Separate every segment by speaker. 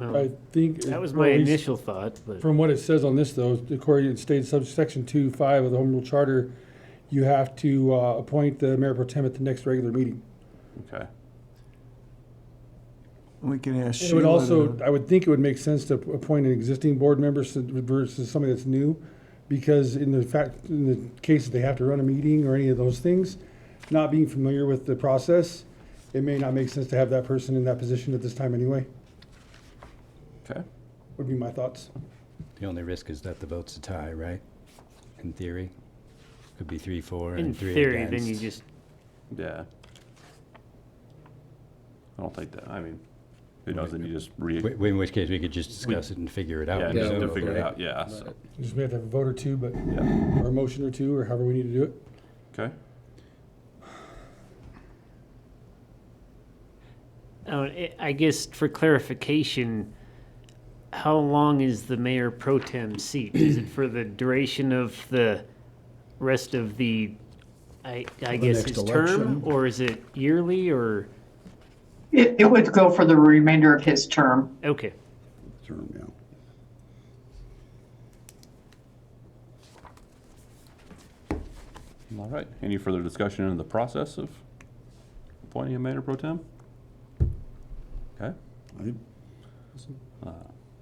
Speaker 1: I think.
Speaker 2: That was
Speaker 1: well,
Speaker 2: my
Speaker 1: at least
Speaker 2: initial thought, but
Speaker 1: From what it says on this though, according to state subsection two five of the Home Rule Charter, you have to, uh, appoint the mayor pro tem at the next regular meeting.
Speaker 3: Okay.
Speaker 4: We can ask
Speaker 1: It would
Speaker 4: Sheila
Speaker 1: also,
Speaker 4: to,
Speaker 1: I would think it would make sense to appoint an existing board member s- versus somebody that's new, because in the fact, in the case that they have to run a meeting or any of those things, not being familiar with the process, it may not make sense to have that person in that position at this time anyway,
Speaker 3: Okay.
Speaker 1: would be my thoughts.
Speaker 5: The only risk is that the vote's a tie, right? In theory, could be three, four,
Speaker 2: in
Speaker 5: and three
Speaker 2: theory, then you
Speaker 5: against.
Speaker 2: just,
Speaker 3: Yeah. I don't think that, I mean, who knows, then you just re,
Speaker 5: Wh- in which case, we could just discuss it and figure it out.
Speaker 3: yeah, just to
Speaker 5: presumably,
Speaker 3: figure it
Speaker 5: right?
Speaker 3: out, yeah, so,
Speaker 1: Just may have to have a vote or two, but,
Speaker 3: yeah,
Speaker 1: or a motion or two, or however we need to do it.
Speaker 3: okay.
Speaker 2: oh, I- I guess for clarification, how long is the mayor pro tem seat? Is it for the duration of the rest of the, I, I guess
Speaker 4: next
Speaker 2: his term?
Speaker 4: election.
Speaker 2: Or is it yearly or,
Speaker 6: It, it would go for the remainder of his term.
Speaker 2: okay,
Speaker 7: term, yeah.
Speaker 3: All right, any further discussion in the process of appointing a mayor pro tem? Okay, Uh,
Speaker 7: I think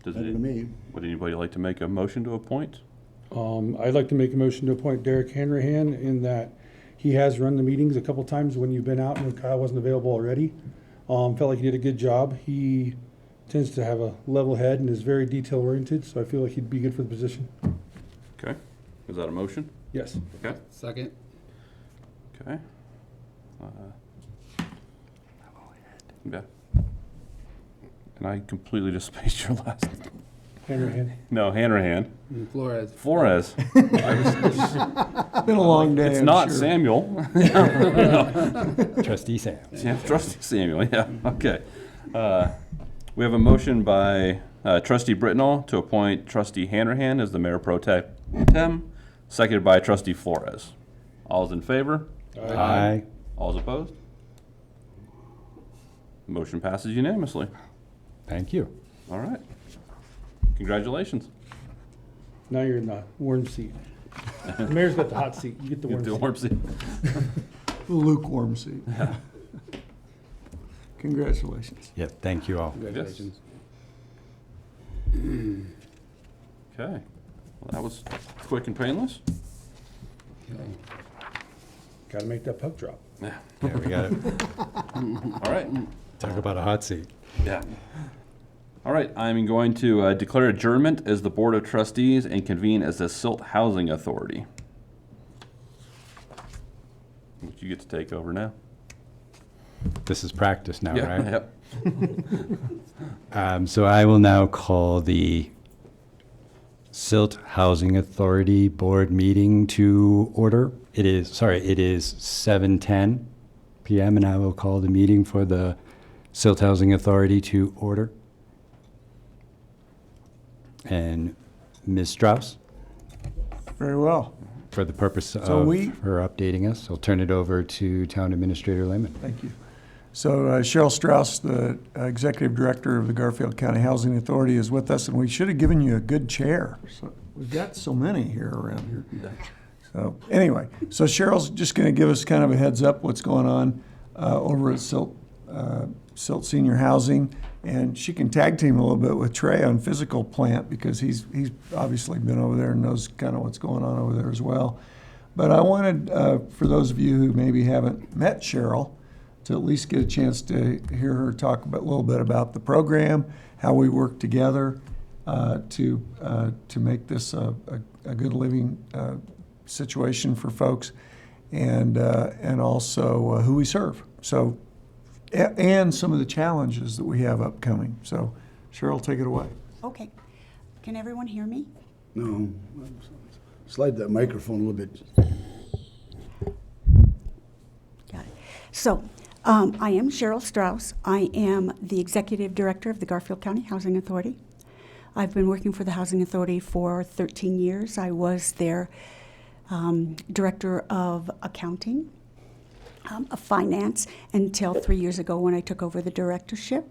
Speaker 3: does
Speaker 7: Better to
Speaker 3: it,
Speaker 7: me.
Speaker 3: would anybody like to make a motion to appoint?
Speaker 1: Um, I'd like to make a motion to appoint Derek Hanrahan in that he has run the meetings a couple times when you've been out and Kyle wasn't available already. Um, felt like he did a good job. He tends to have a level head and is very detail oriented, so I feel like he'd be good for the position.
Speaker 3: Okay, is that a motion?
Speaker 1: Yes.
Speaker 3: Okay,
Speaker 7: Second.
Speaker 3: okay. Uh, Yeah. And I completely just spaced your last,
Speaker 1: Hanrahan.
Speaker 3: no, Hanrahan,
Speaker 7: Flores.
Speaker 3: Flores.
Speaker 4: it's been a long day,
Speaker 3: It's
Speaker 4: I'm
Speaker 3: not
Speaker 4: sure.
Speaker 3: Samuel.
Speaker 5: Trustee Sam.
Speaker 3: Yeah, trustee Samuel, yeah, okay. Uh, We have a motion by uh, trustee Britnall to appoint trustee Hanrahan as the mayor pro te- tem, seconded by trustee Flores. All's in favor?
Speaker 5: Aye.
Speaker 3: All's opposed? Motion passes unanimously.
Speaker 5: Thank you.
Speaker 3: All right. Congratulations.
Speaker 1: Now you're in the warm seat. The mayor's got the hot seat. You get the
Speaker 3: Get
Speaker 1: warm
Speaker 3: the
Speaker 1: seat.
Speaker 3: warm seat.
Speaker 4: Lukewarm seat. Congratulations.
Speaker 5: Yeah, thank you all.
Speaker 3: Congratulations. Okay, well, that was quick and painless.
Speaker 1: Gotta make that puck drop.
Speaker 5: Yeah, we got to
Speaker 3: All right.
Speaker 5: talk about a hot seat.
Speaker 3: Yeah. All right, I'm going to uh, declare adjournment as the Board of Trustees and convene as the Silt Housing Authority. Which you get to take over now.
Speaker 5: This is practice now,
Speaker 3: Yeah,
Speaker 5: right?
Speaker 3: Yep.
Speaker 5: Um, So I will now call the Silt Housing Authority Board meeting to order. It is, sorry, it is 7:10 PM, and I will call the meeting for the Silt Housing Authority to order. And Ms. Strauss,
Speaker 4: Very well.
Speaker 5: for the purpose of
Speaker 4: So we-
Speaker 5: her updating us, I'll turn it over to Town Administrator Lehman.
Speaker 4: Thank you. So uh, Cheryl Strauss, the uh, Executive Director of the Garfield County Housing Authority, is with us, and we should have given you a good chair. So We've got so many here around here. So, anyway, so Cheryl's just going to give us kind of a heads up what's going on uh, over at Silt, uh, Silt Senior Housing, and she can tag team a little bit with Trey on physical plant, because he's, he's obviously been over there and knows kind of what's going on over there as well. But I wanted, uh, for those of you who maybe haven't met Cheryl, to at least get a chance to hear her talk a bit- little bit about the program, how we work together uh, to uh, to make this a, a, a good living uh, situation for folks, and uh, and also uh, who we serve. So, a- and some of the challenges that we have upcoming. So, Cheryl, take it away.
Speaker 8: Okay. Can everyone hear me?
Speaker 7: No. Slide that microphone a little bit.
Speaker 8: Got it. So, um, I am Cheryl Strauss. I am the Executive Director of the Garfield County Housing Authority. I've been working for the Housing Authority for 13 years. I was their um, Director of Accounting, um, of Finance, until three years ago when I took over the directorship.